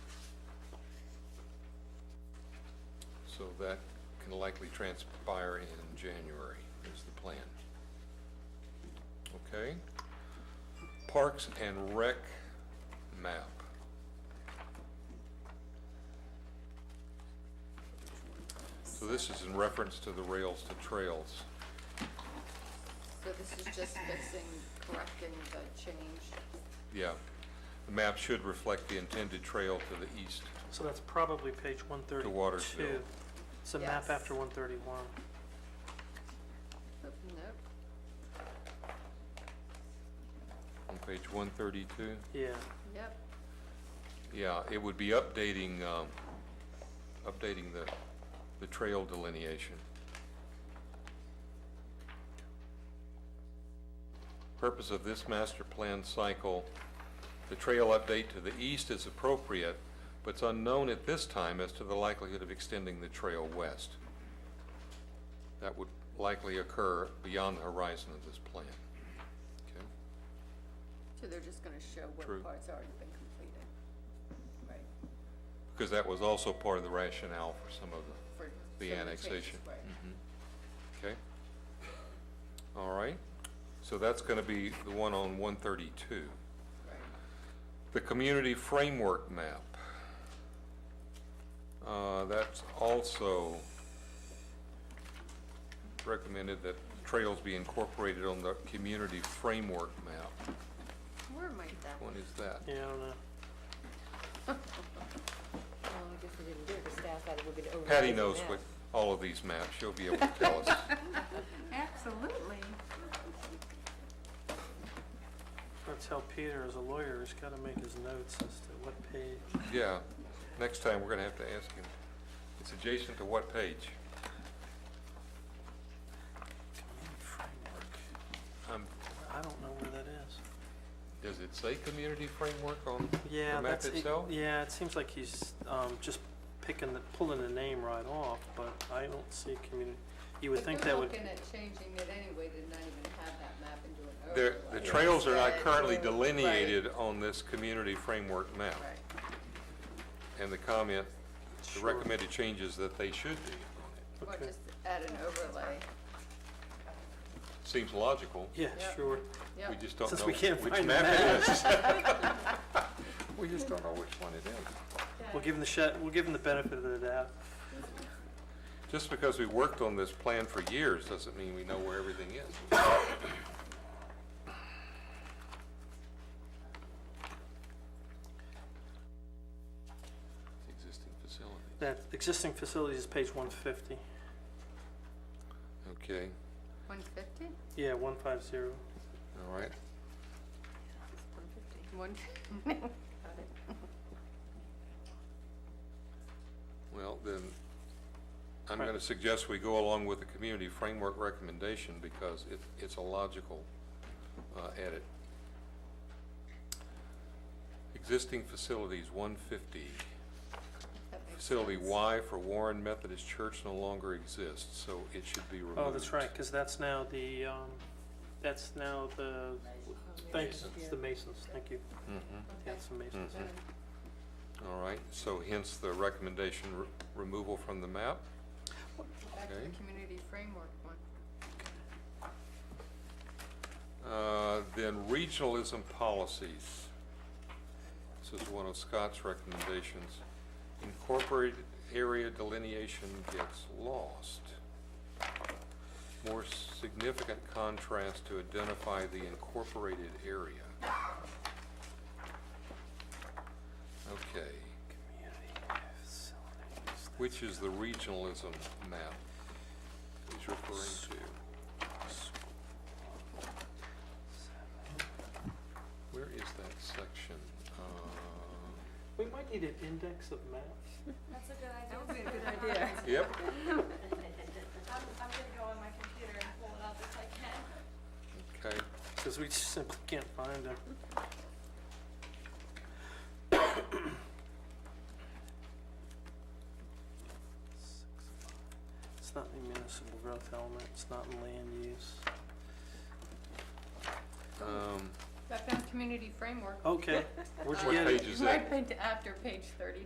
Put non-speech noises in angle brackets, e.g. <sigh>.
so that can likely transpire in January, is the plan. Okay? Parks and Rec map. So this is in reference to the rails to trails. So this is just fixing, correcting the change. Yeah. The map should reflect the intended trail to the east. So that's probably page one thirty-two. Watersville. It's a map Yes. after one thirty-one. Nope, On page 132? Yeah, yep, Yeah, it would be updating, um, updating the, the trail delineation. Purpose of this master plan cycle, the trail update to the east is appropriate, but it's unknown at this time as to the likelihood of extending the trail west. That would likely occur beyond the horizon of this plan. Okay? so they're just gonna show what True. parts already been completed. Right. Because that was also part of the rationale for some of the For The some of changes, annexation. Right. Okay. All right. So that's going to be the one on 132. Mm-hmm. Right. The community framework map. Uh, That's also recommended that trails be incorporated on the community framework map. Where might that? What is that? yeah, I don't know. Well, I guess we didn't do it, the staff had, we're gonna override Patty the knows map. what all of these maps, she'll be able to tell us. Absolutely. That's how Peter, as a lawyer, has gotta make his notes as to what page. Yeah, next time we're going to have to ask him. It's adjacent to what page? Framework. I'm I don't know where that is. Does it say community framework on Yeah, the map that's, it- itself? yeah, it seems like he's, um, just picking the, pulling the name right off, but I don't see community. You would think that would, They're looking at changing it anyway, to not even have that map and do an The, the overlay. trails are not Instead, currently right, delineated on this community framework map. Right, And the comment, the Sure. recommended changes that they should be on or Okay. just add an overlay, it. Seems logical. yeah, Yep. sure. We yep. just don't Since know we which can't find the map it is. <laughs> <laughs> We just don't know which one it is. We'll give him the shot, we'll give him the benefit of the doubt. Just because we worked on this plan for years doesn't mean we know where everything is. <coughs> Existing facility. That existing facilities is page one fifty. Okay, One fifty? Yeah, one five zero. all right. One, <laughs> Well, then, I'm Right. going to suggest we go along with the community framework recommendation because it, it's a logical uh, edit. Existing facilities, 150. that makes Facility sense. Y for Warren Methodist Church no longer exists, so it should be removed. Oh, that's right, because that's now the, um, that's now the, thank you, it's the Masons, thank you. Mhm. Yeah, it's the Masons. Mhm. All right, so hence the recommendation re- removal from the map. Back to the Okay. community framework one. Uh, Then regionalism policies. This is one of Scott's recommendations. Incorporated area delineation gets lost. More significant contrast to identify the incorporated area. Okay, which is the regionalism map he's referring to? Where is that section? Uh, We might need an index of maps. That's a good idea. That would be a good idea. Yep, I'm, I'm gonna go on my computer and pull it up if I can. okay. Because we just simply can't find them. It's not in municipal growth element, it's not in land use. Um, Back on community framework. Okay, where'd you What get it? <laughs> page is that? Right after page thirty